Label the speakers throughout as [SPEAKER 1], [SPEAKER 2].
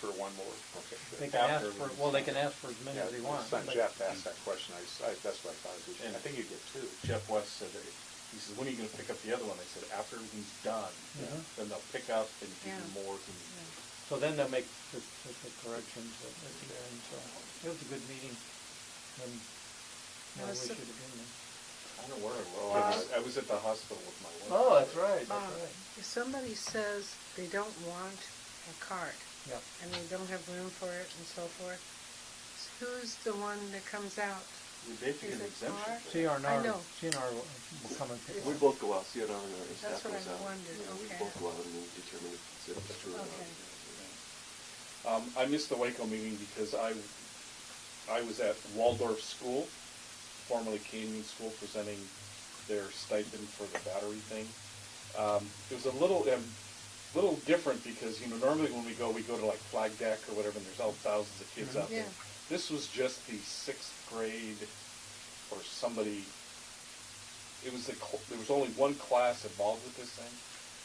[SPEAKER 1] for one more.
[SPEAKER 2] They can ask
[SPEAKER 1] After-
[SPEAKER 2] for, well, they can ask for as many
[SPEAKER 1] Yeah,
[SPEAKER 2] as they want.
[SPEAKER 1] Son
[SPEAKER 2] but-
[SPEAKER 1] Jeff asked that question, I, s- I- that's what I thought, we should-
[SPEAKER 3] And-
[SPEAKER 1] I think you get two.
[SPEAKER 3] Jeff West said, that he says, when are you gonna pick up the other one? I said, after everything's done,
[SPEAKER 2] Mhm.
[SPEAKER 3] then they'll pick up and do
[SPEAKER 4] Yeah.
[SPEAKER 3] more.
[SPEAKER 2] So then they'll make specific corrections at at the end, so it was a good meeting. And I
[SPEAKER 4] Was
[SPEAKER 2] wish it
[SPEAKER 4] it-
[SPEAKER 2] had been there.
[SPEAKER 3] I don't know where I was, I was, I was at the hospital with my wife.
[SPEAKER 2] Oh, that's right, that's
[SPEAKER 4] Bob,
[SPEAKER 2] right.
[SPEAKER 4] if somebody says they don't want a cart
[SPEAKER 2] Yeah,
[SPEAKER 4] and they don't have room for it and so forth, who's the one that comes out?
[SPEAKER 3] We basically get
[SPEAKER 4] Is
[SPEAKER 3] an
[SPEAKER 4] it
[SPEAKER 3] exemption.
[SPEAKER 4] car?
[SPEAKER 3] for that.
[SPEAKER 2] CNR,
[SPEAKER 4] know.
[SPEAKER 2] CNR will will come and pick
[SPEAKER 5] We
[SPEAKER 2] it up.
[SPEAKER 5] both go out, see it on our
[SPEAKER 4] That's
[SPEAKER 5] staff
[SPEAKER 4] what
[SPEAKER 5] goes
[SPEAKER 4] I
[SPEAKER 5] out.
[SPEAKER 4] wondered,
[SPEAKER 5] Yeah, We
[SPEAKER 4] okay.
[SPEAKER 5] both go out and we determine if it's
[SPEAKER 3] uh,
[SPEAKER 5] true or not.
[SPEAKER 4] Okay.
[SPEAKER 3] Um, I missed the Waco meeting because I, I was at Waldorf School, formerly Canyon School, presenting their stipend for the battery thing. Um, it was a little, um, little different because, you know, normally when we go, we go to like Flag Deck or whatever, and there's all thousands of kids out there.
[SPEAKER 4] Yeah.
[SPEAKER 3] This was just the sixth grade or somebody, it was a, cl- there was only one class involved with this thing.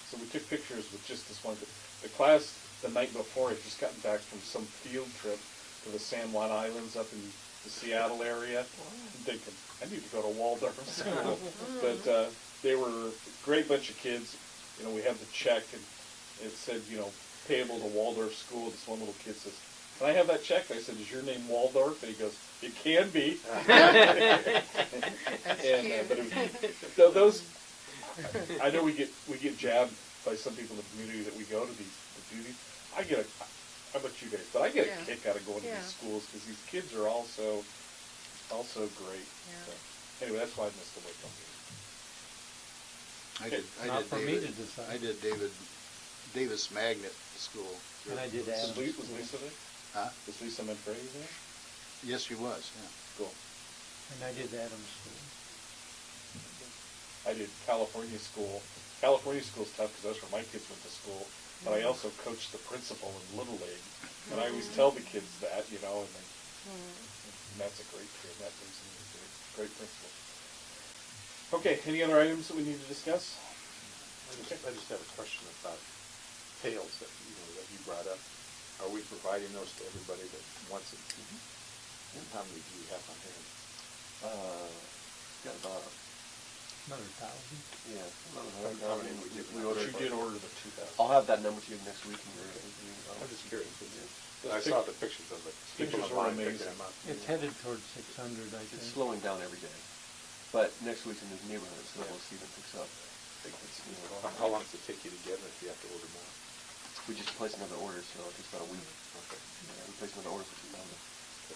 [SPEAKER 3] So we took pictures with just this one. The class the night before had just gotten back from some field trip to the San Juan Islands up in the Seattle area. I'm thinking, I need to go to Waldorf school. but uh, they were a great bunch of kids. You know, we have the check and it said, you know, payable to Waldorf school. This one little kid says, can I have that check? I said, is your name Waldorf? And he goes, it can be.
[SPEAKER 4] That's
[SPEAKER 3] And, uh,
[SPEAKER 4] cute.
[SPEAKER 3] but it, th- those, I know we get we get jabbed by some people in the community that we go to these to do these. I get a, how about you guys? But I get
[SPEAKER 4] Yeah.
[SPEAKER 3] a kick out of going to
[SPEAKER 4] Yeah.
[SPEAKER 3] these schools because these kids are also also great.
[SPEAKER 4] Yeah.
[SPEAKER 3] So, anyway, that's why I missed the wake up meeting.
[SPEAKER 6] I did, I
[SPEAKER 2] Not
[SPEAKER 6] did
[SPEAKER 2] for me to
[SPEAKER 6] David,
[SPEAKER 2] decide.
[SPEAKER 6] I did David, Davis Magnet School.
[SPEAKER 2] And I did
[SPEAKER 3] Was, Lisa,
[SPEAKER 2] ask.
[SPEAKER 3] was Lisa there?
[SPEAKER 6] Huh?
[SPEAKER 3] Was Lisa Manfredi there?
[SPEAKER 6] Yes, she was, yeah.
[SPEAKER 3] Cool.
[SPEAKER 2] And I did Adams School.
[SPEAKER 3] I did California school. California school's tough because that's where my kids went to school. But
[SPEAKER 4] Mm-hmm.
[SPEAKER 3] I also coached the principal in Little League, and I always tell the kids that, you know, and they And that's a great kid. That brings me to a great principle. Okay, any other items that we need to discuss?
[SPEAKER 1] I just- I just have a question about tails that, you know, that you brought up. Are we providing those to everybody that wants it? And how many do you have on hand?
[SPEAKER 5] Uh,
[SPEAKER 1] Got about,
[SPEAKER 2] Another thousand.
[SPEAKER 5] yeah.
[SPEAKER 1] How many we did?
[SPEAKER 5] We ordered.
[SPEAKER 3] But you did order the two thousand.
[SPEAKER 5] I'll have that number to you next week. and we're- we- I'll-
[SPEAKER 1] I'm just curious.
[SPEAKER 3] Those
[SPEAKER 1] I saw
[SPEAKER 3] pic-
[SPEAKER 1] the pictures of it. People
[SPEAKER 3] pictures are
[SPEAKER 1] online picking
[SPEAKER 3] amazing.
[SPEAKER 1] them up.
[SPEAKER 2] It's headed towards six hundred, I
[SPEAKER 5] It's
[SPEAKER 2] think.
[SPEAKER 5] slowing down every day, but next week's in this neighborhood, so we'll see if it picks up.
[SPEAKER 1] How- How long does it take you to get them if you have to order more?
[SPEAKER 5] We just placed another order, so it takes about a week. Yeah, We placed another order for two thousand.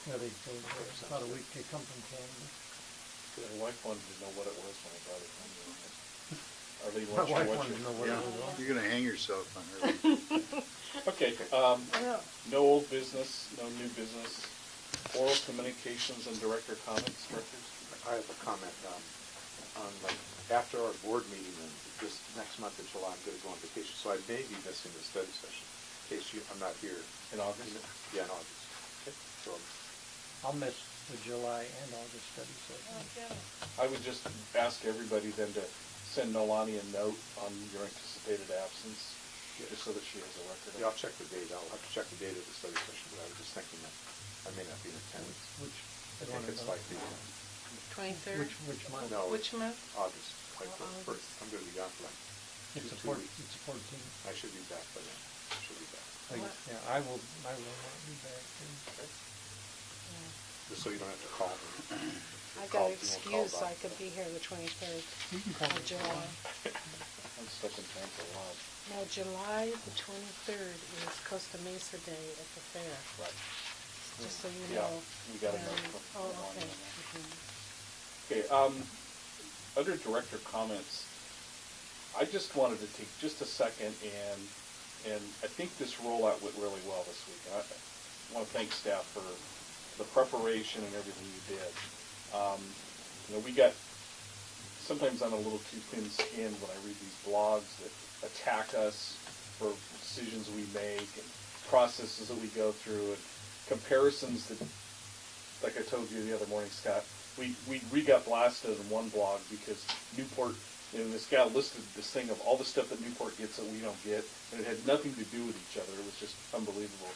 [SPEAKER 2] Yeah, they, they, it's about a week, they come from Canada.
[SPEAKER 3] My wife wanted to know what it was when I brought it home. Or they
[SPEAKER 2] My
[SPEAKER 3] want you
[SPEAKER 2] wife
[SPEAKER 3] to watch
[SPEAKER 2] wanted to know
[SPEAKER 3] it.
[SPEAKER 2] what it was.
[SPEAKER 6] You're gonna hang yourself on her.
[SPEAKER 3] Okay, um,
[SPEAKER 4] Well,
[SPEAKER 3] no old business, no new business. Oral communications and director comments, directors?
[SPEAKER 1] I have a comment, um, on like, after our board meeting in this next month in July, I'm gonna go on vacation, so I may be missing the study session, in case you, I'm not here.
[SPEAKER 3] In August?
[SPEAKER 1] Yeah, in August. So,
[SPEAKER 2] I'll miss the July and August study session.
[SPEAKER 3] I would just ask everybody then to send Nolani a note on your anticipated absence, just so that she has a record. of it.
[SPEAKER 1] yeah, I'll check the date, I'll have to check the date of the study session, but I was just thinking that I may not be in attendance.
[SPEAKER 2] Which,
[SPEAKER 1] I think it's like the, uh,
[SPEAKER 4] twenty-third?
[SPEAKER 2] which, which month?
[SPEAKER 3] Oh,
[SPEAKER 1] no.
[SPEAKER 4] Which month?
[SPEAKER 1] August, like the
[SPEAKER 4] August.
[SPEAKER 1] first, I'm gonna be gone for like,
[SPEAKER 2] It's the
[SPEAKER 1] two
[SPEAKER 2] four,
[SPEAKER 1] weeks.
[SPEAKER 2] it's the fourteenth.
[SPEAKER 1] I should be back by then, I should be back.
[SPEAKER 2] I-
[SPEAKER 4] What?
[SPEAKER 2] Yeah, I will, I will not be back. then.
[SPEAKER 1] Just so you don't have to call me.
[SPEAKER 4] I
[SPEAKER 1] Call- you
[SPEAKER 4] got an
[SPEAKER 1] won't call
[SPEAKER 4] excuse,
[SPEAKER 1] back.
[SPEAKER 4] I could be here the twenty-third
[SPEAKER 2] You can call
[SPEAKER 4] of
[SPEAKER 2] me.
[SPEAKER 4] July.
[SPEAKER 3] I'm stuck in time for a while.
[SPEAKER 4] Now, July the twenty-third is Costa Mesa Day at the fair,
[SPEAKER 3] Right.
[SPEAKER 4] just so you
[SPEAKER 3] Yeah,
[SPEAKER 4] know.
[SPEAKER 3] we got a
[SPEAKER 4] Um,
[SPEAKER 3] note from- from
[SPEAKER 4] Oh,
[SPEAKER 3] Lonnie on
[SPEAKER 4] okay.
[SPEAKER 3] that.
[SPEAKER 4] Mhm.
[SPEAKER 3] Okay, um, other director comments. I just wanted to take just a second and, and I think this rollout went really well this week. And I want to thank staff for the preparation and everything you did. Um, you know, we got, sometimes I'm a little too thin-skinned when I read these blogs that attack us for decisions we make and processes that we go through and comparisons that like I told you the other morning, Scott, we, we, we got blasted in one blog because Newport, and this guy listed this thing of all the stuff that Newport gets that we don't get, and it had nothing to do with each other. It was just unbelievable.